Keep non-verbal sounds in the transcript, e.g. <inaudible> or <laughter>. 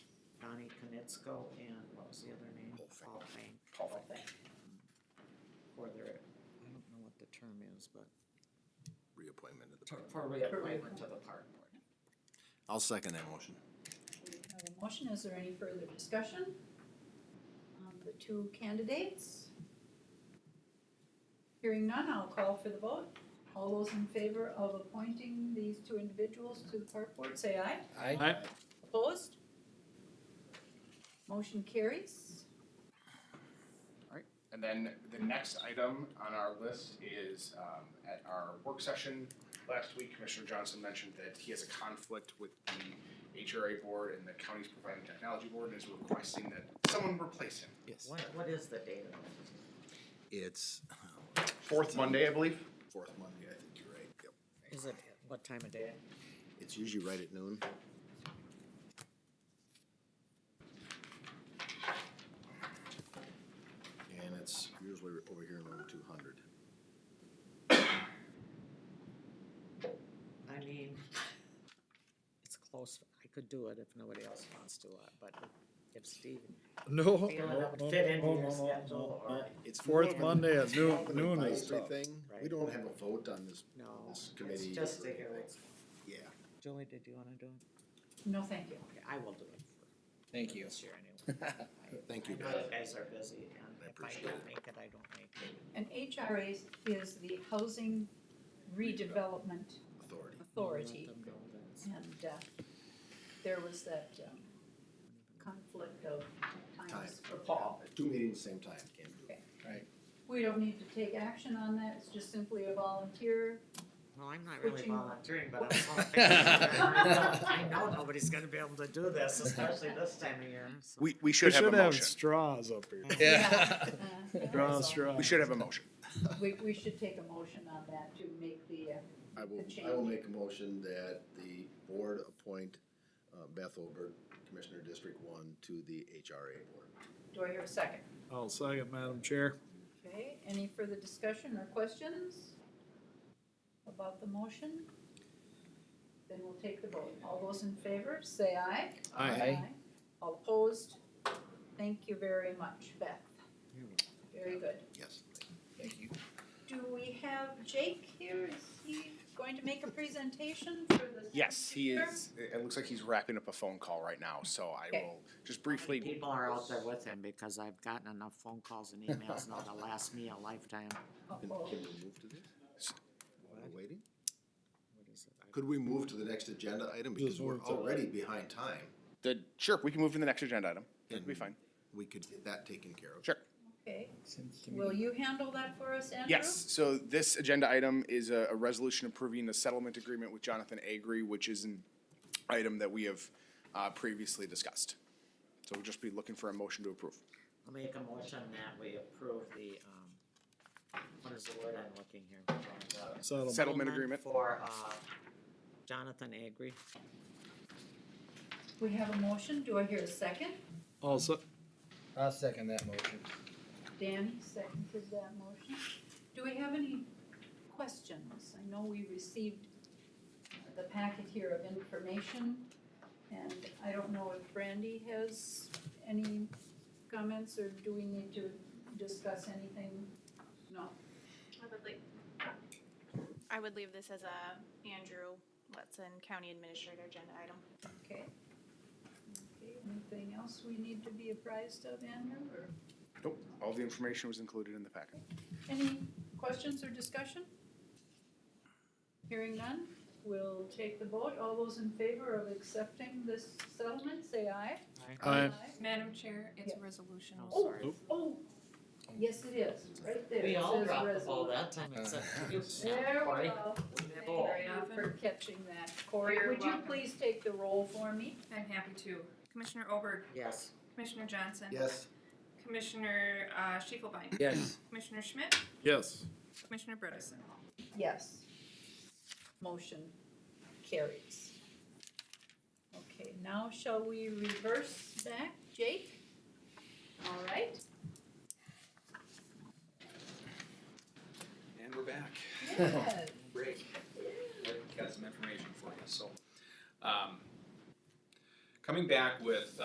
Metzko and what was the other name? Hallfang. For their, Um, I don't know what the term is, but reappointment of the. ter- for reappointment to the park board. I'll second that motion. We have a motion, is there any further discussion on the two candidates? Hearing none, I'll call for the vote. All those in favor of appointing these two individuals to the park board, say aye. Aye. Opposed? Motion carries. And then the next item on our list is um, at our work session last week, Commissioner Johnson mentioned that he has a conflict with the HRA board and the county's providing technology board and is requesting that someone replace him. Yes. What, what is the date of it? It's um, Fourth Monday, I believe. fourth Monday, I think you're right. Yep. Is it, what time of day? It's usually right at noon. And it's usually over here in room two hundred. I mean, it's close, I could do it if nobody else wants to, uh, but if Steve, No. feeling it would fit into no, no, your no, schedule no. or, It's more Fourth of an- Monday at noon, more of an noon is advisory tough. thing. We Right. don't have a vote on this, no, this it's committee. just or to hear anything. what's. Yeah. Julie, did you wanna do it? No, thank you. Okay, I will do it for. Thank you. This year anyway. Thank you, I know guys. you guys are busy and I if I appreciate don't it. make it, I don't make it. And HRA is the Housing Redevelopment Authority. Authority. Let them know that's- And uh, there was that um, conflict of times for Paul. Two meetings same time, can't do it. We don't need to take action on that, it's just simply a volunteer. Well, I'm not really Switching- volunteering, but I'm <laughs> helping. I know nobody's gonna be able to do this, especially this time of year, so. We, we We should have a should have motion. straws up here. Yeah. Draw Uh, a straw. We should have a motion. We, we should take a motion on that to make the, uh, I will, The I will change. make a motion that the board appoint uh, Beth Olberg, Commissioner District One, to the HRA board. do I hear a second? I'll second, Madam Chair. Okay, any further discussion or questions about the motion? Then we'll take the vote. All those in favor, say aye. Aye. All opposed? Thank you very much, Beth. Very good. Yes. Thank you. Do we have Jake here? Is he going to make a presentation for the? Yes, he speaker? is. It it looks like he's wrapping up a phone call right now, so I Okay. will just briefly. People are out there with him because I've gotten enough phone calls and emails now to last me a lifetime. Can Uh-oh. can we move to this? While we're waiting? What is it? I- Could we move to the next agenda item? Because we're move to it. already behind time. The, sure, we can move to the next agenda item. It'll be And fine. We could get that taken care of. Sure. Okay, Seems to me- will you handle that for us, Andrew? Yes, so this agenda item is a, a resolution approving the settlement agreement with Jonathan Agri, which is an item that we have, uh, previously discussed. So we'll just be looking for a motion to approve. I'll make a motion that we approve the, um, what is the word I'm looking here? for? The Settle. Settlement agreement. For, uh, Jonathan Agri. We have a motion. Do I hear a second? I'll se- I'll second that motion. Danny seconded that motion. Do we have any questions? I know we received the packet here of information, and I don't know if Brandy has any comments, or do we need to discuss anything? No, I would leave. I would leave this as a Andrew Letson County Administrator agenda item. okay. Okay, anything else we need to be apprised of, Andrew, or Nope, all the information was included in the packet. any questions or discussion? Hearing none, we'll take the vote. All those in favor of accepting this settlement, say aye. Aye. Madam Chair, it's a resolution. Oh, Oh, sorry. Oh, yes, it is, right there. We It all says dropped the ball resolution. that time except you. There we Cory. go. That Thank ball. you. Thank you for catching that. Corey, You're would you welcome. please take the roll for me? I'm happy to. Commissioner Oberg, Yes. Commissioner Johnson. Yes. Commissioner uh, Schiefelbein. Yes. Commissioner Schmidt, Yes. Commissioner Bredesen. Yes. Motion carries. Okay, now shall we reverse back, Jake? All right. And we're back. Yes. break. I've Got some information for you, so. um, Coming back with